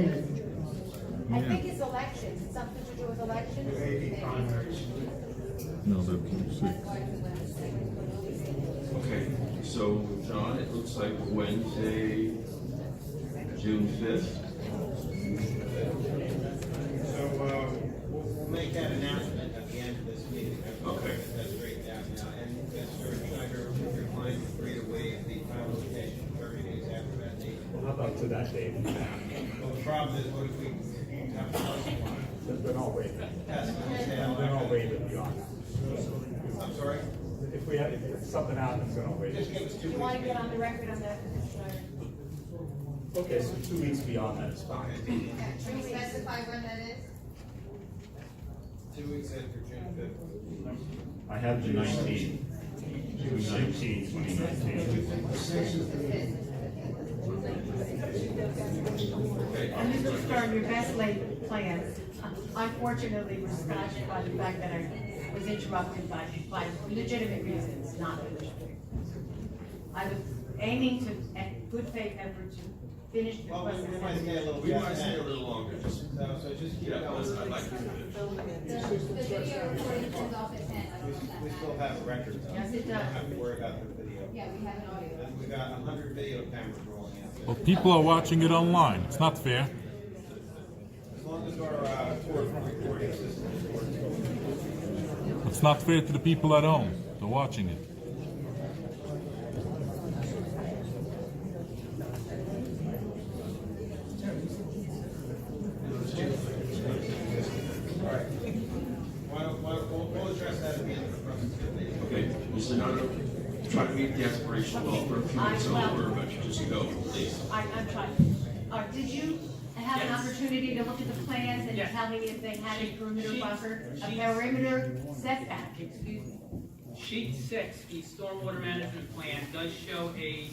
I think it's elections, It's something to do with elections. No, they're six. Okay, so John, it looks like Wednesday, June fifth. So, uh, we'll, we'll make that announcement at the end of this meeting. Okay. That's great, down now, and Mr. Schneider, if your client free to waive the final location thirty days after that date. Well, how about to that date? Well, the problem is, what if we have a house one? Then I'll waive it. That's what I'm saying. Then I'll waive it beyond. I'm sorry? If we have, if it's something happens, then I'll waive Just it. give us two You weeks. wanna get on the record on that, Commissioner? Okay, so two weeks beyond that is fine. Okay. Can you specify when that is? Two weeks after June fifth. I have the nineteenth. June nineteenth, twenty nineteen. And Mr. Stern, your best laid plans, unfortunately, were scotched by the fact that I was interrupted by, by legitimate reasons, not legitimate. I was aiming to, at good faith effort to finish the Well, we- we might question. stay a little. We might past stay a that. little longer, just, So, so just keep yeah, going. I'd like to finish. The the video recording turns off at ten, I We, don't know if that we still matters. have a record, though. Yes, We it don't does. have to worry about the video. Yeah, we have an audio. And we got a hundred video cameras rolling out Well, there. people are watching it online. It's not fair. As long as our, uh, court recording system is working. It's not fair to the people at home. They're watching it. All right. Why don't, why, we'll, we'll address that at the end of the presentation. Okay, Mr. Nano, try to meet the aspiration goal for a few minutes over, but you just go, please. I, I'm trying, uh, did you have an opportunity to look at the plans and tell me if they had a perimeter buffer, a perimeter setback, excuse me? Sheet six, the stormwater management plan does show a,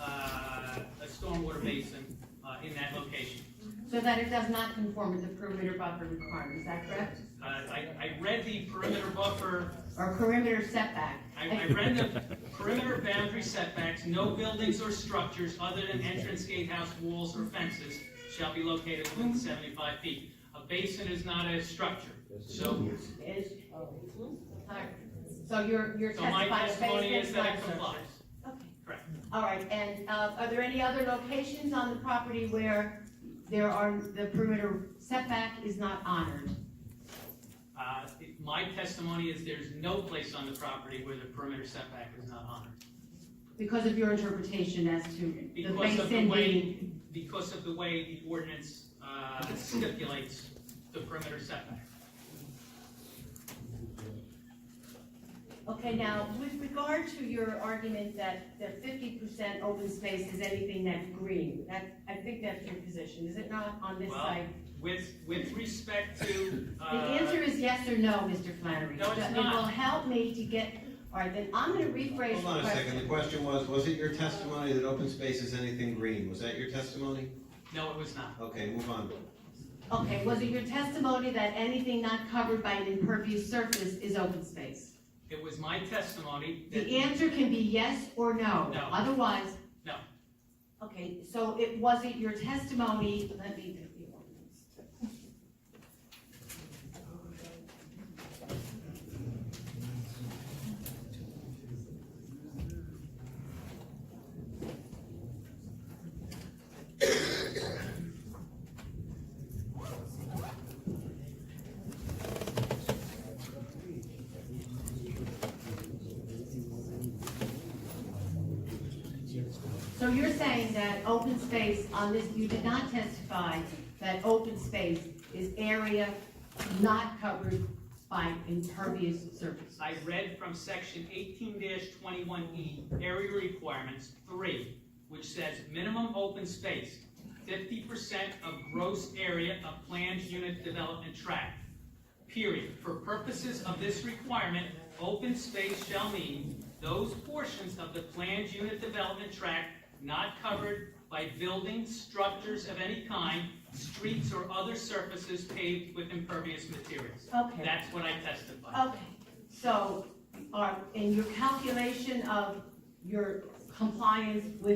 uh, a stormwater basin, uh, in that location. So that it does not conform with the perimeter buffer requirement, is that correct? Uh, I, I read the perimeter buffer, Or perimeter setback? I, I read the perimeter boundary setbacks, no buildings or structures other than entrance, gatehouse, walls, or fences shall be located within seventy-five feet. A basin is not a structure, so, Is, alright, so you're, you're so my testifying based testimony is on that it structure. complies, Okay, correct. alright, and, uh, are there any other locations on the property where there are, the perimeter setback is not honored? Uh, it- My testimony is there's no place on the property where the perimeter setback is not honored. Because of your interpretation as to the Because of the basin way, being, because of the way the ordinance uh, stipulates the perimeter setback. okay, now, with regard to your argument that, that fifty percent open space is anything that's green, that, I think that's your position, is it not, on this Well, site? With, with respect to, The answer uh, is yes or no, Mr. Flannery. No, it's It not. will help me to get, all right, then I'm gonna rephrase the question. Hold on a second, the question was, was it your testimony that open space is anything green? Was that your testimony? no, it was not. Okay, move on. Okay, was it your testimony that anything not covered by an impervious surface is open space? It was my testimony The that, answer can be yes or no. No. Otherwise. No. Okay, so it wasn't your testimony, let me get the ordinance. So you're saying that open space on this, you did not testify that open space is area not covered by impervious surface? I read from section eighteen twenty-one E, area requirements, three, which says minimum open space, fifty percent of gross area of planned unit development tract. Period. For purposes of this requirement, open space shall mean those portions of the planned unit development tract not covered by buildings, structures of any kind, streets or other surfaces paved with impervious materials. Okay. That's what I testified. Okay, so, are, in your calculation of your compliance with